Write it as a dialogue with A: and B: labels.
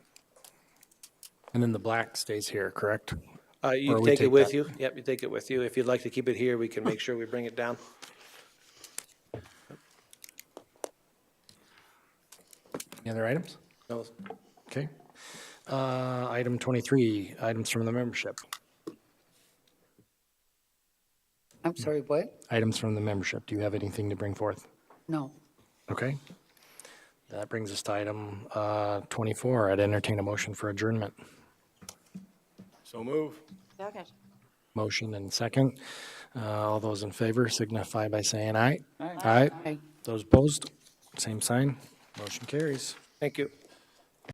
A: And then the black stays here, correct?
B: Uh,
A: Or
B: you
A: we
B: take it
A: take
B: with
A: that.
B: you? Yep, you take it with you. If you'd like to keep it here, we can make sure we bring it down.
A: Any other items?
B: No,
A: Okay. Uh, Item 23, items from the membership.
C: I'm sorry, what?
A: Items from the membership. Do you have anything to bring forth?
C: No.
A: Okay. That brings us to item uh, 24. I'd entertain a motion for adjournment.
D: So move.
E: Second.
A: Motion and second. Uh, All those in favor signify by saying aye. Aye.
C: Aye.
A: Those opposed, same sign. Motion carries.
B: Thank you.